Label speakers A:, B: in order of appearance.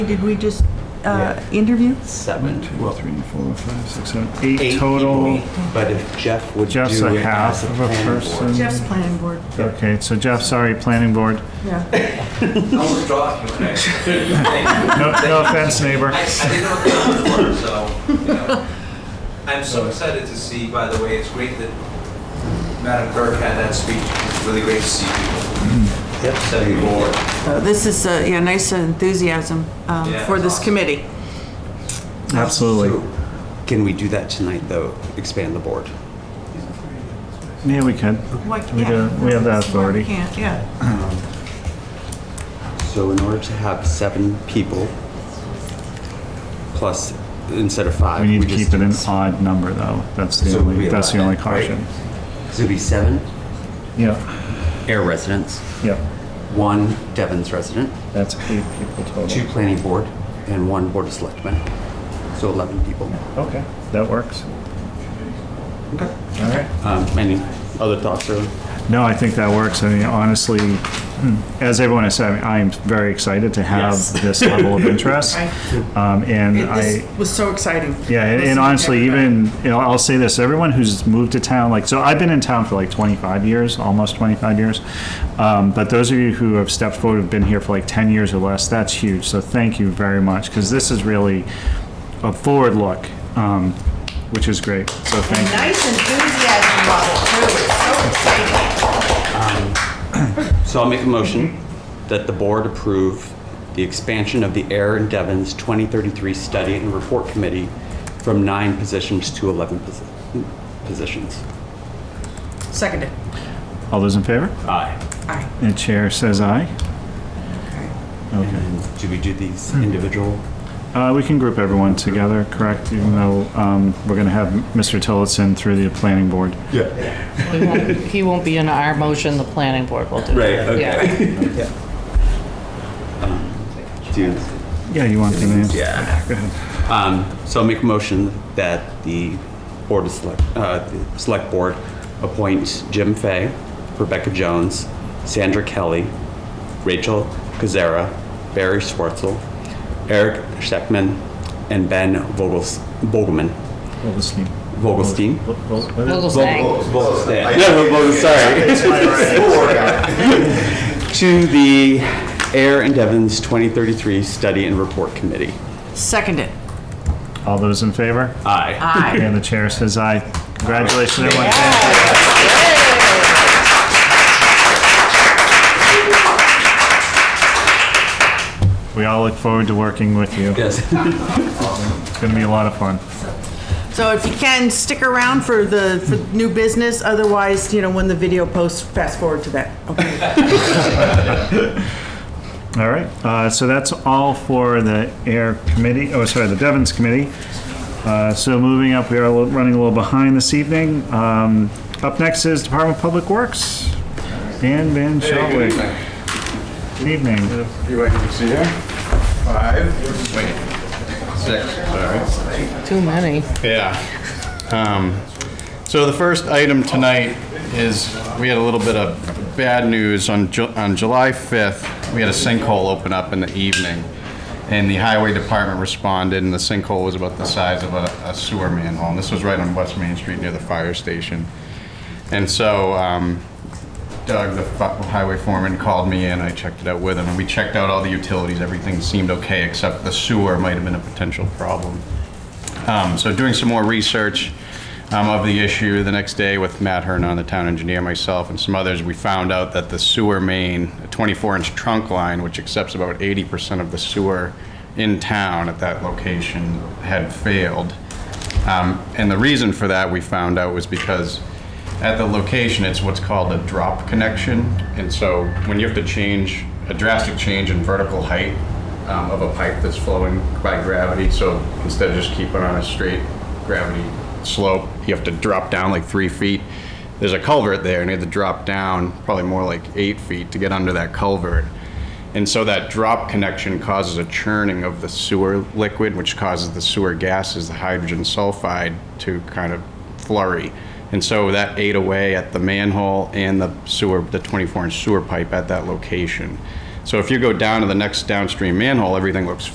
A: Did we just uh,
B: Yeah.
A: interview?
B: seven.
C: Two, three, four, five, six, seven, eight
B: Eight
C: total.
B: people. But if Jeff would do
C: Jeff's a
B: it
C: half
B: as a
C: of a
B: planning board.
C: person.
A: Jeff's planning board.
C: Okay, so Jeff, sorry, planning board.
A: Yeah.
D: I'll withdraw if you want to.
C: No, no offense, neighbor.
D: I, I didn't know what that was for, so, you know. I'm so excited to see, by the way, it's great that Madam Kirk had that speech. It's really great to see people.
B: Yep.
D: Setting the board.
A: So This is, uh, yeah, nice enthusiasm um,
D: Yeah,
A: for
D: it's
A: this
D: awesome.
A: committee.
C: Absolutely.
B: Can we do that tonight, though? Expand the board?
C: Yeah, we could.
A: Why-
C: We
A: yeah.
C: do- we have that
A: Why we
C: authority.
A: can't, yeah.
B: So in order to have seven people, plus, instead of five.
C: We need to
B: just
C: keep it
B: do
C: an
B: s-
C: odd number, though. That's the
B: So
C: only,
B: we
C: that's the
B: allow
C: only
B: that, right?
C: caution.
B: So it'd be seven
C: Yeah,
B: air residents,
C: yeah,
B: one Devon's resident,
C: that's eight people
B: two
C: total.
B: planning board, and one board of selectmen. So 11 people.
C: Okay, that works.
B: Okay.
C: All right.
B: Um, Any other thoughts or?
C: No, I think that works. I mean, honestly, hmm, as everyone has said, I mean, I am very excited to have
B: Yes.
C: this level of interest.
A: Right.
C: Um, and
A: It-
C: I.
A: This was so exciting.
C: Yeah, and,
A: Listen
C: and
A: to
C: honestly,
A: everybody.
C: even you know, I'll say this: everyone who's moved to town, like so, I've been in town for like 25 years, almost 25 years. Um, but those of you who have stepped forward, have been here for like 10 years or less. That's huge. So thank you very much, because this is really a forward look, um, which is great. So thank you.
E: Nice enthusiasm level, too. It's so exciting.
B: So I'll make a motion that the board approve the expansion of the Air and Devon's 2033 Study and Report Committee from nine positions to 11 posi- positions.
A: Seconded.
C: All those in favor?
B: Aye.
A: Aye.
C: The chair says aye.
B: And do we do these individual?
C: Uh, we can group everyone together, correct? Even though um, we're going to have Mr. Tillotson through the planning board.
B: Yeah.
F: We won't- He won't be in our motion, the planning board will do. it.
B: Right,
F: Yeah.
B: okay. Do you-
C: Yeah, you want the names?
B: Um, So I'll make a motion that the Board of Select, uh, the Select Board appoint Jim Fay, Rebecca Jones, Sandra Kelly, Rachel Kazera, Barry Schwartzel, Eric Scheckman, and Ben Vogels- Vogelman.
C: What was the-
B: Vogelstein?
C: what- what- what-
F: Little thing.
B: Yeah, Vogel- sorry. To the Air and Devon's 2033 Study and Report Committee.
A: Seconded.
C: All those in favor?
B: Aye.
A: Aye.
C: And the chair says aye. Congratulations, everyone. Thank you. We all look forward to working with you.
B: Yes.
C: It's going to be a lot of fun.
A: So if you can, stick around for the, for new business, otherwise, you know, when the video posts, fast forward to that. Okay.
C: All right, uh, so that's all for the air committee, oh, sorry, the Devens committee. Uh, So moving up, we are a little- running a little behind this evening. Um, Up next is Department of Public Works, Dan Van Shelwick. Good evening.
G: You like to see here? Five. Wait. Six. All right.
F: Too many.
G: Yeah. Um, so the first item tonight is we had a little bit of bad news on Ju- on July 5th. We had a sinkhole open up in the evening, and the highway department responded, and the sinkhole was about the size of a, a sewer manhole. And this was right on West Main Street near the fire station. And so um, Doug, the fi- highway foreman, called me in. I checked it out with him, and we checked out all the utilities. Everything seemed okay, except the sewer might have been a potential problem. Um, So doing some more research um, of the issue the next day with Matt Hernon, the town engineer, myself, and some others, we found out that the sewer main, a 24-inch trunk line, which accepts about 80% of the sewer in town at that location, had failed. Um, And the reason for that, we found out, was because at the location, it's what's called a drop connection. And so when you have to change, a drastic change in vertical height um, of a pipe that's flowing by gravity, so instead of just keeping on a straight gravity slope, you have to drop down like three feet. There's a culvert there, and you have to drop down probably more like eight feet to get under that culvert. And so that drop connection causes a churning of the sewer liquid, which causes the sewer gases, the hydrogen sulfide, to kind of flurry. And so that ate away at the manhole and the sewer, the 24 inch sewer pipe at that location. So if you go down to the next downstream manhole, everything looks